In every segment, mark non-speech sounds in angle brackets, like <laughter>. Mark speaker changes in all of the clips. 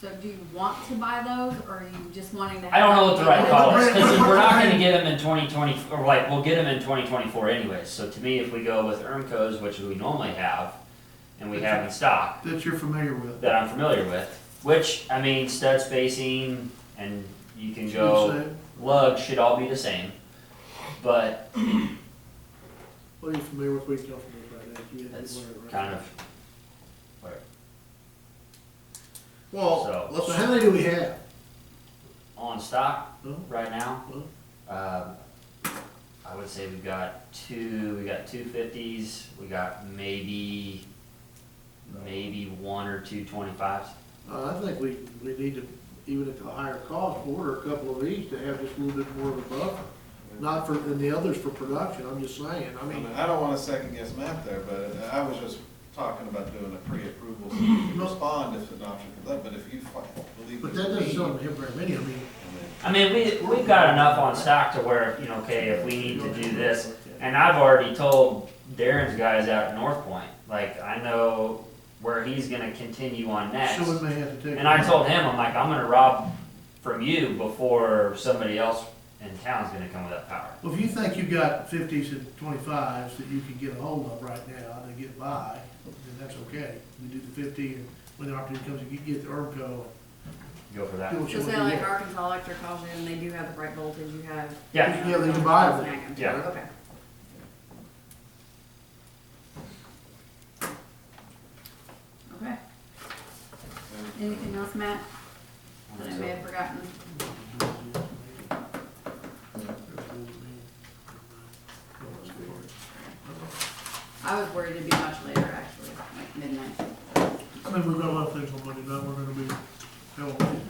Speaker 1: So do you want to buy those, or are you just wanting to?
Speaker 2: I don't know what the right call is,
Speaker 1: Because
Speaker 2: because we're not gonna get them in twenty twenty, or like, we'll get them in twenty twenty-four anyways, so to me, if we go with ERMCO's, which we normally have, and we have in stock,
Speaker 3: that you're familiar with.
Speaker 2: that I'm familiar with, which, I mean, stud spacing, and you can
Speaker 3: Should
Speaker 2: go,
Speaker 3: say,
Speaker 2: lug should all be the same, but
Speaker 3: What are you familiar with, we can go from there right now. if you had to
Speaker 2: That's
Speaker 3: learn it right
Speaker 2: kind
Speaker 3: now.
Speaker 2: of,
Speaker 3: Well,
Speaker 2: so-
Speaker 3: so how many do we have?
Speaker 2: on stock
Speaker 3: Huh?
Speaker 2: right now, um, I would say we've got two, we got two fifties, we got maybe, maybe one or two twenty-fives.
Speaker 3: Uh, I think we, we need to, even at the higher cost, order a couple of these to have just a little bit more of a buffer. Not for, and the others for production, I'm just saying, I
Speaker 4: I mean,
Speaker 3: mean,
Speaker 4: I don't wanna second guess Matt there, but I was just talking about doing a pre-approval, so you can respond if an option comes up, but if you fi- believe.
Speaker 3: but
Speaker 4: there's
Speaker 3: that
Speaker 4: a
Speaker 3: doesn't
Speaker 4: need,
Speaker 3: sound him very many, I mean.
Speaker 4: I mean,
Speaker 2: I mean, we, we've got enough on stock to where, you know, okay, if we need to do this, and I've already told Darren's guys out at North Point, like, I know where he's gonna continue on next.
Speaker 3: So we may have to take.
Speaker 2: And I told him, I'm like, I'm gonna rob from you before somebody else in town's gonna come with that power.
Speaker 3: Well, if you think you got fifties and twenty-fives that you can get a hold of right now to get by, then that's okay. We do the fifty, and when the opportunity comes, you get the ERMCO, do
Speaker 2: Go for that.
Speaker 3: <laughs> what you
Speaker 5: So
Speaker 3: want
Speaker 5: say
Speaker 3: to
Speaker 5: like
Speaker 3: do.
Speaker 5: Arkansas Electric calls you and they do have the right voltage, you have.
Speaker 2: Yeah,
Speaker 3: Yeah, they can buy them.
Speaker 5: Snag 'em.
Speaker 2: Yeah.
Speaker 5: Okay.
Speaker 1: Okay,
Speaker 4: and-
Speaker 1: anything else, Matt, that I may
Speaker 2: so
Speaker 1: have forgotten?
Speaker 5: I was worried it'd be much later, actually, like midnight.
Speaker 3: I mean, we've got a lot of things on Monday night, we're gonna be, hell,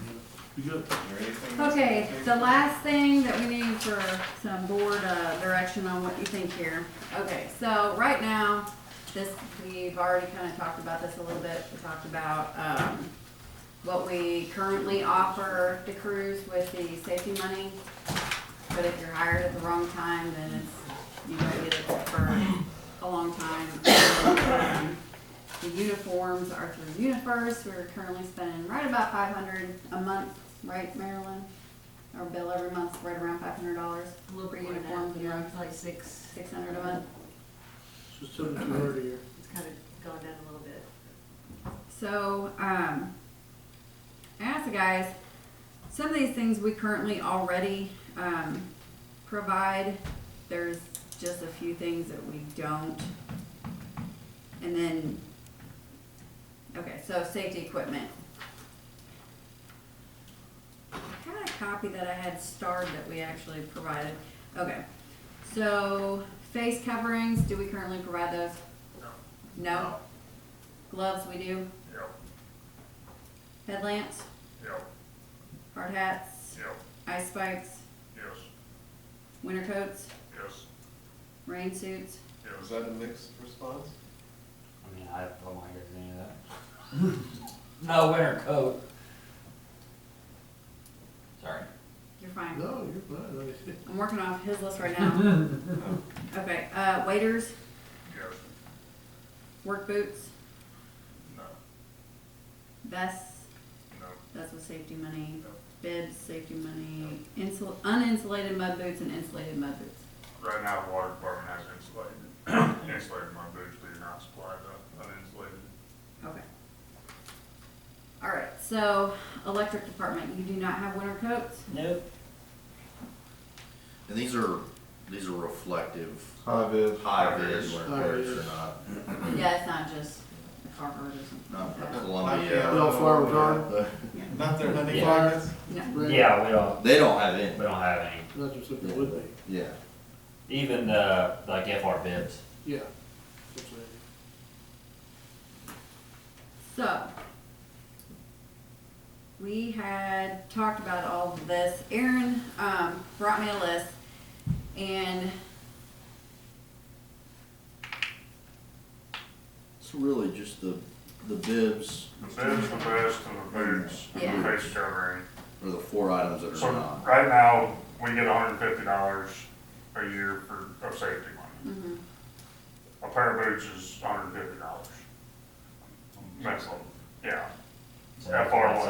Speaker 3: we good.
Speaker 4: Is there anything else?
Speaker 1: Okay, the last thing that we need for some board, uh, direction on what you think here. Okay, so right now, this, we've already kinda talked about this a little bit, we talked about, um, what we currently offer the crews with the safety money. But if you're hired at the wrong time, then it's, you might get it for a long time. Um, The uniforms are through UniFirst, we're currently spending right about five hundred a month, right, Marilyn? Our bill every month's right around five hundred dollars,
Speaker 5: A little
Speaker 1: bit more than that, yeah, it's
Speaker 5: like six,
Speaker 1: six hundred a month.
Speaker 3: So seventy-two hundred a year.
Speaker 5: it's kind of gone down a little bit.
Speaker 1: So, um, I asked the guys, some of these things we currently already, um, provide. There's just a few things that we don't. And then, okay, so safety equipment. I got a copy that I had starred that we actually provided. Okay, so face coverings, do we currently provide those? No. No? Gloves, we do?
Speaker 6: Yep.
Speaker 1: Headlamps,
Speaker 6: Yep,
Speaker 1: hard hats,
Speaker 6: yep,
Speaker 1: ice spikes,
Speaker 6: yes,
Speaker 1: winter coats,
Speaker 6: yes,
Speaker 1: rain suits.
Speaker 4: Is
Speaker 6: yes.
Speaker 4: that a mixed response?
Speaker 2: I mean, I don't want to hear any of that. <laughs> No winter coat. Sorry.
Speaker 1: You're fine.
Speaker 3: No, you're fine, like I said.
Speaker 1: I'm working off his list right now. Okay, uh, waiters,
Speaker 6: Yes,
Speaker 1: work boots,
Speaker 6: no,
Speaker 1: vests,
Speaker 6: no,
Speaker 1: that's with safety money,
Speaker 6: Yep.
Speaker 1: bibs, safety money, insul, uninsulated mud boots and insulated mud boots.
Speaker 6: right now, the water department has insulated, <coughs> insulated my boots, they're not supplied, uh, uninsulated.
Speaker 1: Okay. All right, so electric department, you do not have winter coats?
Speaker 2: Nope.
Speaker 7: And these are, these are reflective,
Speaker 4: High vis.
Speaker 7: high vis,
Speaker 3: High
Speaker 7: whether
Speaker 3: vis.
Speaker 7: or not, <laughs>
Speaker 1: Yeah, it's not just a carpet or
Speaker 7: not
Speaker 1: something like that.
Speaker 7: Columbia.
Speaker 3: Well, fire retardant.
Speaker 7: but
Speaker 4: Not their honey
Speaker 2: Yeah.
Speaker 4: pockets?
Speaker 1: No,
Speaker 3: Brad,
Speaker 2: Yeah, we don't,
Speaker 7: They don't have any,
Speaker 2: we don't have any.
Speaker 3: Not just if it would be,
Speaker 7: yeah.
Speaker 2: Even the, like FR bibs.
Speaker 3: yeah. That's what I-
Speaker 1: so. We had talked about all of this. Aaron, um, brought me a list and
Speaker 7: It's really just the, the bibs
Speaker 6: The bibs, the vest, and the boots, and the
Speaker 1: Yeah.
Speaker 6: face covering.
Speaker 7: are the four items that
Speaker 6: So,
Speaker 7: are not.
Speaker 6: right now, we get hundred and fifty dollars a year for, of safety money.
Speaker 1: Mhm.
Speaker 6: A pair of boots is hundred and fifty dollars. That's, yeah. FR one.